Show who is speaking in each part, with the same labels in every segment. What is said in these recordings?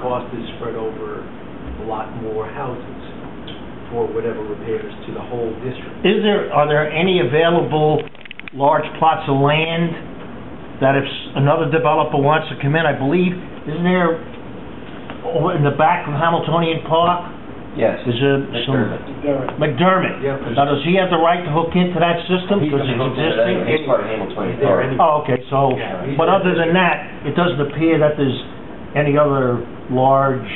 Speaker 1: cost is spread over a lot more houses for whatever repairs to the whole district.
Speaker 2: Is there, are there any available large plots of land that if s- another developer wants to come in, I believe, isn't there, over in the back of Hamiltonian Park,
Speaker 3: Yes.
Speaker 2: is there some...
Speaker 3: McDermott.
Speaker 2: McDermott.
Speaker 1: Yeah.
Speaker 2: Now, does he have the right to hook into that system
Speaker 3: He's
Speaker 2: because it's
Speaker 3: hooked into that.
Speaker 2: existing?
Speaker 3: He's part of Hamiltonian
Speaker 1: Is there
Speaker 3: Park.
Speaker 1: any-
Speaker 2: Oh, okay, so,
Speaker 1: Yeah, he's-
Speaker 2: but other than that, it doesn't appear that there's any other large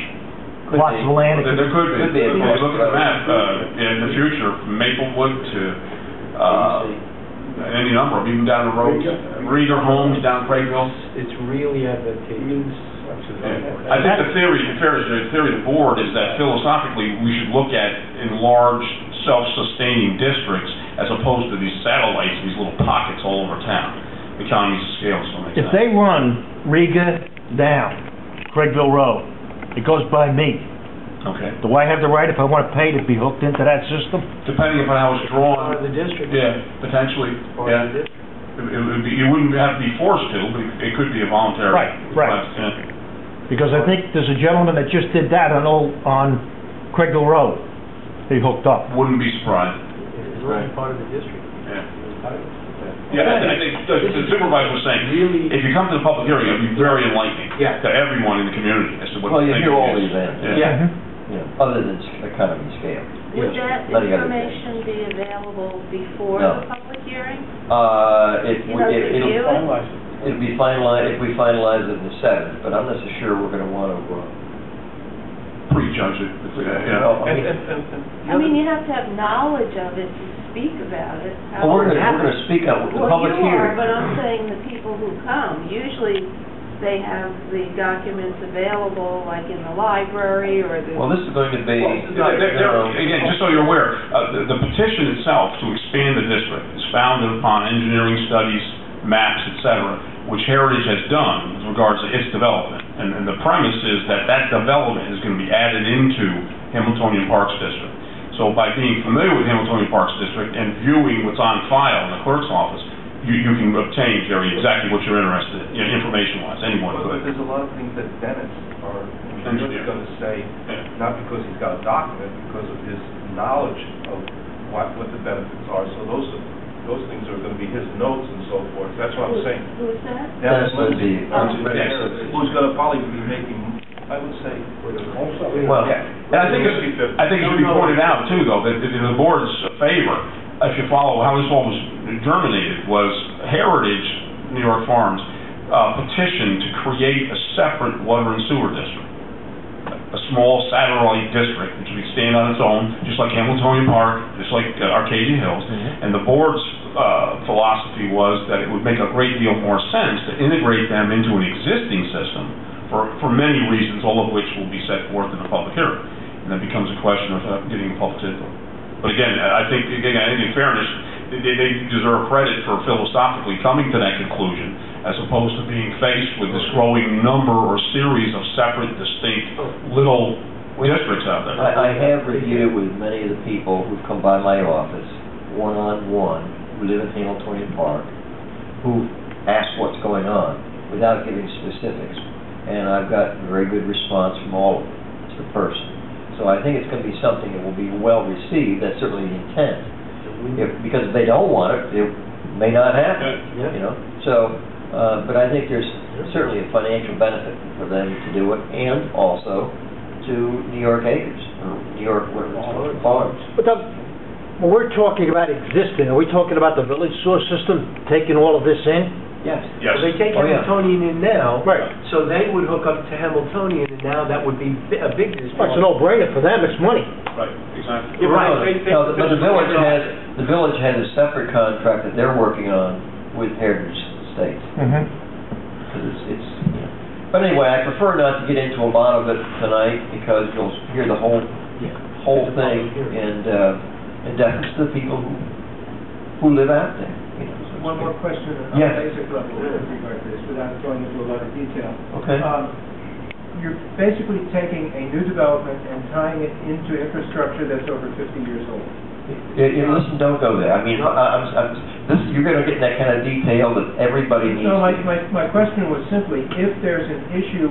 Speaker 3: Could
Speaker 2: plots
Speaker 3: be.
Speaker 2: of land that
Speaker 4: There there could
Speaker 3: Could
Speaker 4: be,
Speaker 3: be.
Speaker 4: if you look at the map, uh, in the future, from Maplewood to, uh, any number of, them, even down the road, Reader Homes down Craigville.
Speaker 1: It's really advantageous.
Speaker 4: I think the theory, the theory, the theory of the board is that philosophically, we should look at enlarged, self-sustaining districts as opposed to these satellites, these little pockets all over town. Economies of scale, so makes
Speaker 2: If
Speaker 4: sense.
Speaker 2: they run Riga down Craigville Road, it goes by me.
Speaker 4: Okay.
Speaker 2: Do I have the right, if I want to pay, to be hooked into that system?
Speaker 4: Depending upon how it's
Speaker 1: Part of
Speaker 4: drawn,
Speaker 1: the district.
Speaker 4: yeah, potentially,
Speaker 1: Part
Speaker 4: yeah.
Speaker 1: of the district.
Speaker 4: It it would be, you wouldn't have to be forced to, but it- it could be a voluntary.
Speaker 2: Right, right.
Speaker 4: request, yeah.
Speaker 2: Because I think there's a gentleman that just did that on, Old- on Craigville Road. He hooked up.
Speaker 4: Wouldn't be surprised.
Speaker 1: It's really part of the district.
Speaker 4: Yeah, I I think the the supervisor was saying, if you come to the public hearing, it'll be very enlightening
Speaker 1: Yeah.
Speaker 4: to everyone in the community as to what.
Speaker 3: Well,
Speaker 4: the
Speaker 3: you hear
Speaker 4: thinking
Speaker 3: all
Speaker 4: is.
Speaker 3: these ends.
Speaker 4: Yeah.
Speaker 1: Yeah.
Speaker 2: Mm-hmm.
Speaker 3: You know, Other than s- economy scale.
Speaker 1: Yes.
Speaker 5: Would that
Speaker 3: Let it go to the-
Speaker 5: information be available before
Speaker 3: No.
Speaker 5: the public hearing?
Speaker 3: Uh, if,
Speaker 5: You
Speaker 3: we-
Speaker 5: know,
Speaker 3: if,
Speaker 5: review
Speaker 3: it'll,
Speaker 5: it?
Speaker 3: it'll be finalized, if we finalize it in the seventh, but I'm not so sure we're gonna wanna, uh,
Speaker 5: Oh,
Speaker 4: Prejudge it. It's, uh,
Speaker 3: Well,
Speaker 4: Yeah.
Speaker 3: I mean-
Speaker 5: I mean, you have to have knowledge of it to speak about it.
Speaker 3: Well, we're gonna, we're gonna speak up, the
Speaker 5: Well,
Speaker 3: public
Speaker 5: you are,
Speaker 3: hearing.
Speaker 5: but I'm saying the people who come, usually they have the documents available, like in the library or the...
Speaker 3: Well, this is going to be,
Speaker 4: There- there- there-
Speaker 3: um,
Speaker 4: Again, just so you're aware, uh, the the petition itself to expand the district is founded upon engineering studies, maps, et cetera, which Heritage has done with regards to its development. And and the premise is that that development is going to be added into Hamiltonian Parks District. So by being familiar with Hamiltonian Parks District and viewing what's on file in the clerk's office, you you can obtain, Jerry, exactly what you're interested in, you know, information-wise, anyone
Speaker 6: Well, but
Speaker 4: could.
Speaker 6: there's a lot of things that Dennis, our
Speaker 4: Engineer.
Speaker 6: engineer's going to say, not because he's got a document, because of his knowledge of what, what the benefits are. So those, are those things are going to be his notes and so forth. That's what I'm
Speaker 5: Who-
Speaker 6: saying.
Speaker 5: Who's that?
Speaker 3: Dennis would be,
Speaker 5: Oh.
Speaker 6: Who's going to probably be making, I would say, also.
Speaker 3: Well,
Speaker 4: And I think, it's- I think it should be pointed out too, though, that in the board's favor, if you follow how this all was germinated, was Heritage New York Farms uh, petitioned to create a separate water and sewer district. A small satellite district, which would stand on its own, just like Hamiltonian Park, just like uh, Arcadia Hills. And the board's uh, philosophy was that it would make a great deal more sense to integrate them into an existing system for, for many reasons, all of which will be set forth in the public hearing. And that becomes a question of uh, getting public input. But again, I I think, again, I think in fairness, they- they, they deserve credit for philosophically coming to that conclusion as opposed to being faced with this growing number or series of separate, distinct, little districts out there.
Speaker 3: I, I have reviewed it with many of the people who've come by my office, one-on-one, who live in Hamiltonian Park, who ask what's going on, without giving specifics. And I've got very good response from all of them, to the person. So I think it's gonna be something that will be well-received, that's certainly the intent. If, because if they don't want it, it may not happen,
Speaker 1: Yeah.
Speaker 3: you know? So, uh, but I think there's certainly a financial benefit for them to do it, and also to New York Acres, or New York, whatever it's called, Farms.
Speaker 2: But the, when we're talking about existing, are we talking about the village sewer system taking all of this in?
Speaker 3: Yes.
Speaker 4: Yes.
Speaker 1: They take
Speaker 3: Oh, yeah.
Speaker 1: Hamiltonian in now.
Speaker 2: Right.
Speaker 1: So they would hook up to Hamiltonian, and now that would be bi- a big district.
Speaker 2: Well, It's a no-brainer for them, it's money.
Speaker 4: Right, exactly.
Speaker 1: You're right.
Speaker 3: No,
Speaker 1: They- they-
Speaker 3: no, But the village has, the village has a separate contract that they're working on with Heritage Estates.
Speaker 2: Mm-hmm.
Speaker 3: because it's, it's, you know. but anyway, I prefer not to get into a lot of it tonight, because you'll hear the whole,
Speaker 1: Yeah.
Speaker 3: whole
Speaker 1: It's a
Speaker 3: thing,
Speaker 1: public hearing.
Speaker 3: and, uh, and that's the people who, who live out there, you know. so to
Speaker 7: One more
Speaker 3: speak.
Speaker 7: question on
Speaker 3: Yes.
Speaker 7: a basic level with regard to this, without going into a lot of detail.
Speaker 3: Okay,
Speaker 7: Um, You're basically taking a new development and tying it into infrastructure that's over 50 years old.
Speaker 3: Yeah, yeah, listen, don't go there, I mean, I, I'm, I'm, this, you're gonna get that kind of detail that everybody needs.
Speaker 7: No, my,
Speaker 3: to-
Speaker 7: my, my question was simply, if there's an issue